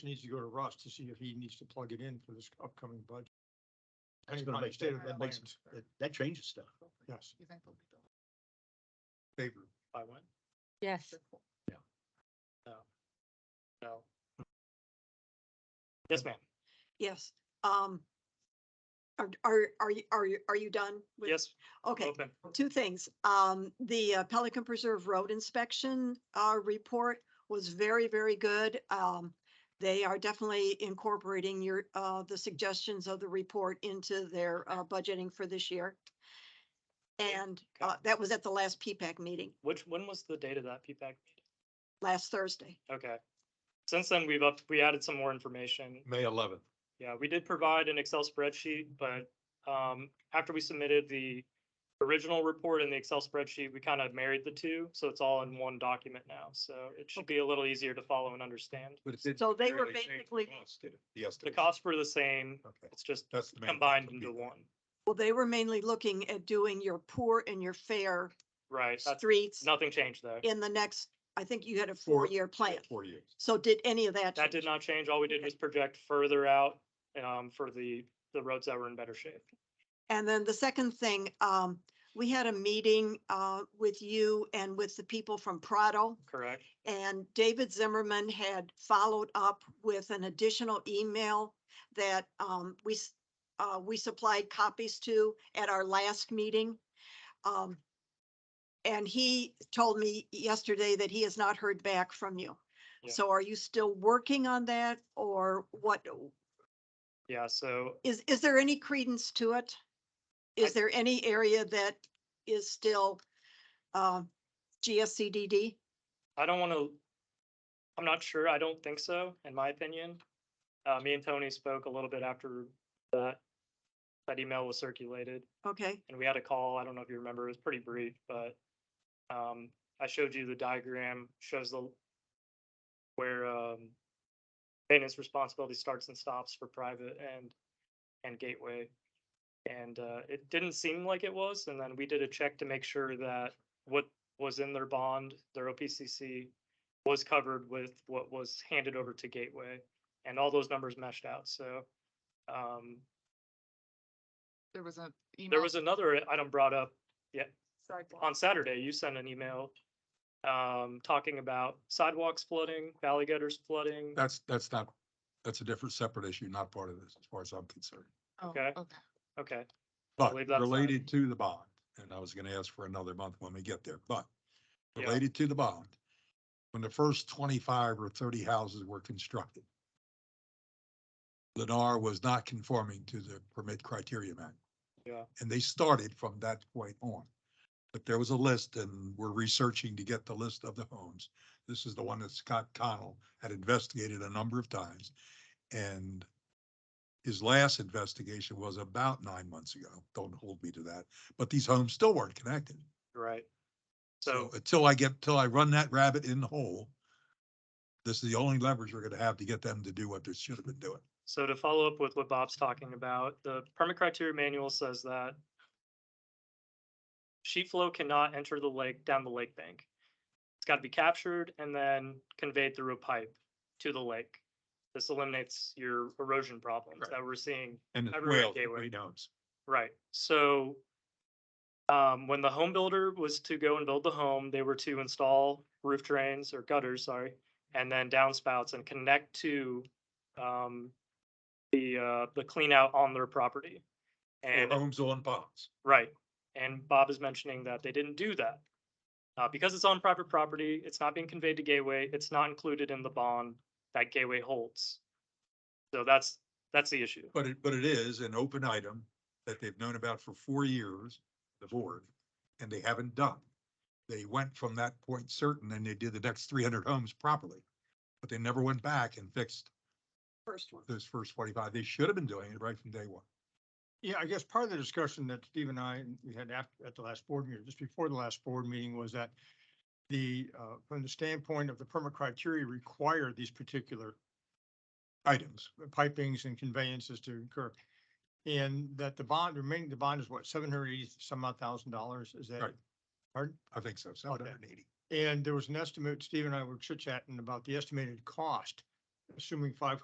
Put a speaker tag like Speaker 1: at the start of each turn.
Speaker 1: needs to go to Russ to see if he needs to plug it in for this upcoming budget.
Speaker 2: That's
Speaker 1: Depending
Speaker 2: gonna
Speaker 1: on the
Speaker 2: make-
Speaker 1: state of the
Speaker 2: that makes-
Speaker 1: plans.
Speaker 2: That that changes stuff.
Speaker 1: Yes,
Speaker 3: You think they'll be done?
Speaker 1: favor.
Speaker 3: By when?
Speaker 4: Yes,
Speaker 2: Yeah.
Speaker 3: No. No. Yes, ma'am.
Speaker 5: Yes, um. Are, are, are you, are you, are you done? with-
Speaker 3: Yes,
Speaker 5: Okay,
Speaker 3: open.
Speaker 5: two things. Um, the uh, Pelican Preserve Road Inspection, uh, report was very, very good. Um, they are definitely incorporating your, uh, the suggestions of the report into their, uh, budgeting for this year. And, uh, that was at the last PPAC meeting,
Speaker 3: Which, when was the date of that P PPAC?
Speaker 5: last Thursday.
Speaker 3: Okay. Since then, we've up, we added some more information.
Speaker 6: May eleventh.
Speaker 3: Yeah, we did provide an Excel spreadsheet, but um, after we submitted the original report and the Excel spreadsheet, we kind of married the two, so it's all in one document now. So it should be a little easier to follow and understand.
Speaker 6: But it did.
Speaker 5: So they were
Speaker 6: barely change the
Speaker 5: basically-
Speaker 6: cost, did it? The
Speaker 3: The
Speaker 6: estimate.
Speaker 3: costs were the same,
Speaker 6: Okay,
Speaker 3: it's just
Speaker 6: that's the main.
Speaker 3: combined
Speaker 6: would be-
Speaker 3: into one.
Speaker 5: Well, they were mainly looking at doing your poor and your fair
Speaker 3: Right, that's,
Speaker 5: streets
Speaker 3: nothing changed though.
Speaker 5: in the next, I think you had a
Speaker 6: Four-
Speaker 5: four-year plan.
Speaker 6: Four years.
Speaker 5: So did any of that?
Speaker 3: That did
Speaker 5: change?
Speaker 3: not change. All we did
Speaker 5: Okay.
Speaker 3: was project further out um, for the, the roads that were in better shape.
Speaker 5: And then the second thing, um, we had a meeting, uh, with you and with the people from Prado.
Speaker 3: Correct?
Speaker 5: And David Zimmerman had followed up with an additional email that, um, we, s- uh, we supplied copies to at our last meeting. Um, and he told me yesterday that he has not heard back from you.
Speaker 3: Yeah.
Speaker 5: So are you still working on that or what,
Speaker 3: Yeah, so
Speaker 5: is, is there any credence to it? Is there any area that is still um, GSCDD?
Speaker 3: I don't want to, I'm not sure. I don't think so, in my opinion. Uh, me and Tony spoke a little bit after that, that email was circulated
Speaker 5: Okay,
Speaker 3: and we had a call. I don't know if you remember, it was pretty brief, but um, I showed you the diagram, shows the where um, maintenance responsibility starts and stops for private and and gateway. And uh, it didn't seem like it was, and then we did a check to make sure that what was in their bond, their OPCC, was covered with what was handed over to Gateway, and all those numbers meshed out. So um,
Speaker 7: There was a email.
Speaker 3: there was another item brought up
Speaker 7: sidewalk.
Speaker 3: on Saturday, you sent an email um, talking about sidewalks flooding, valley gutters flooding.
Speaker 6: That's, that's not, that's a different, separate issue, not part of this, as far as I'm concerned.
Speaker 7: Oh,
Speaker 3: okay.
Speaker 7: Okay.
Speaker 3: Okay,
Speaker 6: But
Speaker 3: believe that's not-
Speaker 6: related to the bond, and I was gonna ask for another month when we get there, but
Speaker 3: Yeah.
Speaker 6: related to the bond, when the first twenty-five or thirty houses were constructed, Lennar was not conforming to the permit criteria man.
Speaker 3: Yeah.
Speaker 6: And they started from that point on. But there was a list and we're researching to get the list of the homes. This is the one that Scott Connell had investigated a number of times. And his last investigation was about nine months ago. Don't hold me to that, but these homes still weren't connected.
Speaker 3: right. So,
Speaker 6: Until I get, till I run that rabbit in the hole, this is the only leverage we're gonna have to get them to do what they should have been doing.
Speaker 3: so to follow up with what Bob's talking about, the permit criteria manual says that sheet flow cannot enter the lake down the lake bank. It's got to be captured and then conveyed through a pipe to the lake. This eliminates your erosion problems that we're seeing
Speaker 6: And
Speaker 3: it's Everywhere whales, gateway. everybody
Speaker 6: knows.
Speaker 3: Right, so um, when the home builder was to go and build the home, they were to install roof drains or gutters, sorry, and then downspouts and connect to um, the uh, the clean out on their property. And
Speaker 6: Homes on ponds.
Speaker 3: right, and Bob is mentioning that they didn't do that. Uh, because it's on private property, it's not being conveyed to Gateway, it's not included in the bond that Gateway holds. So that's, that's the issue.
Speaker 6: But it, but it is an open item that they've known about for four years, the board, and they haven't done. They went from that point certain and they did the next three hundred homes properly, but they never went back and fixed
Speaker 5: First one.
Speaker 6: those first forty-five. They should have been doing it right from day one.
Speaker 1: Yeah, I guess part of the discussion that Steve and I, and we had after, at the last board meeting, just before the last board meeting, was that the, uh, from the standpoint of the permit criteria require these particular
Speaker 6: Items.
Speaker 1: pipings and conveyances to occur. And that the bond, remaining the bond is what, seven hundred eighty some odd thousand dollars, is that?
Speaker 6: Right.
Speaker 1: Pardon?
Speaker 6: I think so, seven hundred and eighty.
Speaker 1: And there was an estimate, Steve and I were chit chatting about the estimated cost assuming five